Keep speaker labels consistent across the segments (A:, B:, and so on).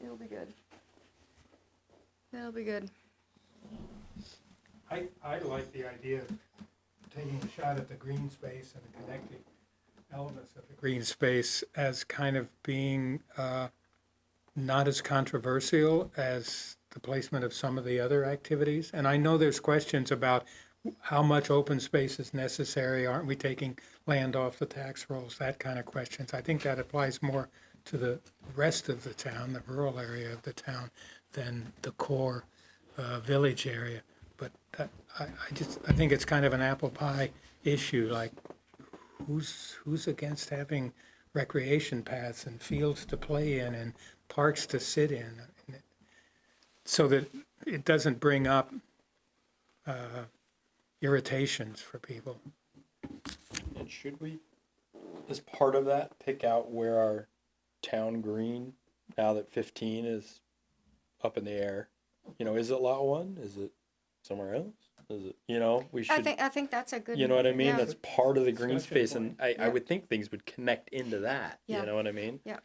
A: That'll be good. That'll be good.
B: I, I like the idea of taking a shot at the green space and the connecting elements of the green space as kind of being uh, not as controversial as the placement of some of the other activities. And I know there's questions about how much open space is necessary, aren't we taking land off the tax rolls, that kind of questions. I think that applies more to the rest of the town, the rural area of the town, than the core uh, village area. But that, I, I just, I think it's kind of an apple pie issue, like who's, who's against having recreation paths and fields to play in and parks to sit in? So that it doesn't bring up uh, irritations for people.
C: And should we, as part of that, pick out where our town green, now that fifteen is up in the air? You know, is it lot one? Is it somewhere else? Is it, you know, we
A: I
C: should,
A: think I think that's a good.
C: you know what I mean?
A: yeah.
C: That's part of the green
B: Discussion
C: space and I, I
A: Yeah.
C: would think things would connect into that, you
A: Yeah.
C: know what I mean?
A: Yeah.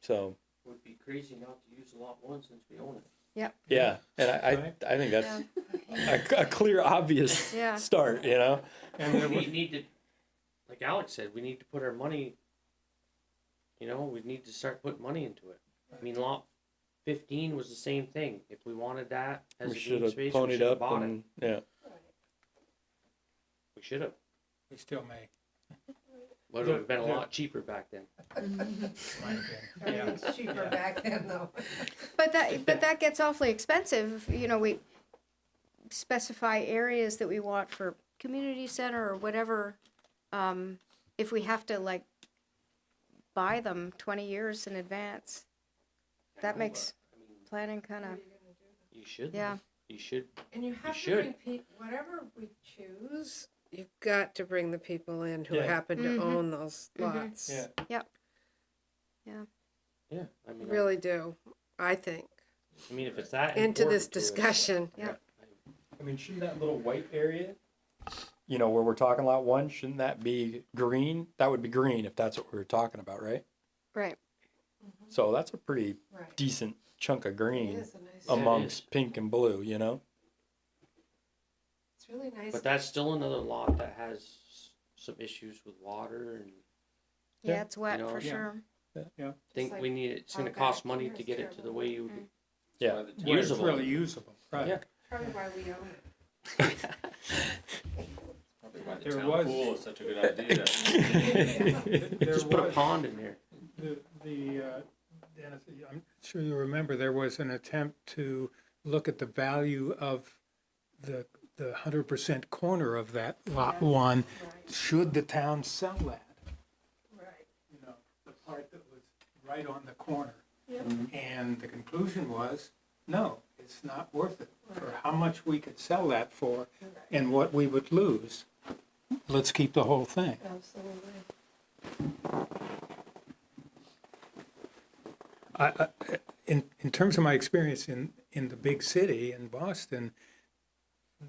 C: So,
D: Would be crazy not to use lot one since we own it.
C: yeah, and I,
B: Right.
C: I, I think that's
A: Yeah.
C: a, a clear, obvious
A: Yeah.
C: start, you know?
B: And there
D: We
B: was,
D: need to, like Alex said, we need to put our money, you know, we need to start putting money into it. I mean, lot fifteen was the same thing. If we wanted that as
C: We
D: a green
C: should have
D: space, we should
C: ponied
D: have
C: up
D: bought it.
C: and, yeah.
D: We should have.
B: we still may.
D: But it would have been a lot cheaper back then.
B: Yeah.
E: It's cheaper back then though.
A: But that, but that gets awfully expensive, you know, we specify areas that we want for community center or whatever. Um, if we have to like buy them twenty years in advance, that makes
D: I mean,
A: planning kind of,
D: You should.
A: Yeah.
D: You should.
E: And you have to
D: should.
E: bring people, whatever we choose, you've got to bring the people in who
C: Yeah.
E: happen
A: Mhm.
E: to own those
A: Mhm.
E: lots.
C: Yeah.
D: Yeah. I mean,
E: Really do, I think,
D: I mean, if it's that
E: into this
D: important to us,
E: discussion.
C: I mean, shouldn't that little white area, you know, where we're talking lot one, shouldn't that be green? That would be green if that's what we were talking about, right?
A: right,
C: So that's a pretty
E: Right.
C: decent chunk of
E: It
C: green
E: is a nice,
D: Um,
C: amongst pink and blue, you know?
E: it's really nice.
D: But that's still another lot that has s- some issues with water and
A: yeah,
C: Yeah.
A: it's wet
D: You know,
A: for
D: yeah.
A: sure.
D: think
E: like
D: we need, it's gonna
E: our
D: cost
E: back
D: money
E: here
D: to
E: is
D: get it to the
E: terrible.
D: way you.
A: Mm.
C: Yeah.
B: Where it's
D: Usable.
B: Really usable,
D: Yeah.
B: right.
E: Probably why we own it.
F: Probably why the
B: There
F: town
B: was-
F: pool is such a good idea.
B: There
D: Just put a
B: was-
D: pond in there.
B: The, the, uh, Dennis, I'm sure you remember, there was an attempt to look at the value of the, the hundred percent corner of that lot one. Should the town sell that?
E: Right.
B: you know, the part that was right on the corner. And the conclusion was, no, it's not worth it for how much we could sell that for and what we would lose. Let's keep the whole thing.
E: Absolutely.
B: I, I, in, in terms of my experience in, in the big city in Boston,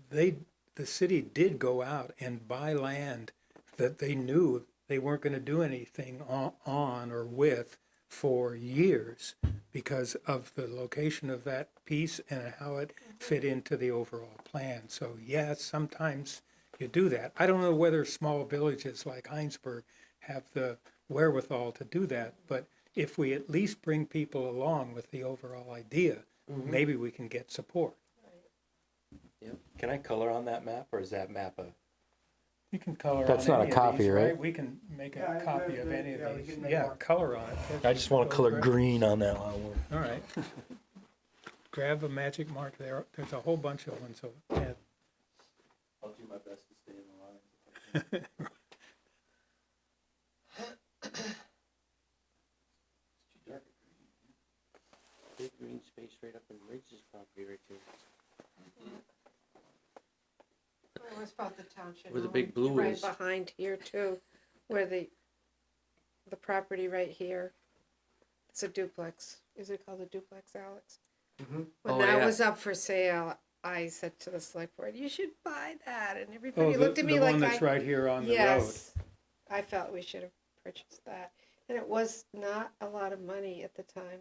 B: they, the city did go out and buy land that they knew they weren't going to do anything on, on or with for years because of the location of that piece and how it fit into the overall plan. So yeah, sometimes you do that. I don't know whether small villages like Heinsberg have the wherewithal to do that, but if we at least bring people along with the overall idea, maybe we can get support.
C: Can I color on that map or is that map a?
B: You can color
C: That's
B: on
C: not
B: any
C: a
B: of
C: copy,
B: these,
C: right?
B: We can make
G: Yeah,
B: a
G: I-
B: copy
G: yeah,
B: of any
G: yeah,
B: of
G: we
B: these.
G: can make
B: Yeah,
G: one.
B: color on it.
C: I just want to color green on that one.
B: All right. Grab a magic mark there. There's a whole bunch of ones. So yeah,
F: I'll do my best to stay in the line.
D: Big green space right up in Riggs' property right there.
E: Well, It's about the township.
D: Where the
E: hall,
D: big blue
E: Right
D: is.
E: behind here too, where the, the property right here, it's a duplex. Is it called a duplex, Alex?
D: Oh,
B: Mm-hmm.
E: When that
D: yeah.
E: was up for sale, I said to the select board, you should buy that, and
B: Oh,
E: everybody
B: the,
E: looked at me
B: the one that's
E: like I.
B: right here on the road.
E: Yes, I felt we should have purchased that, and it was not a lot of money at the time.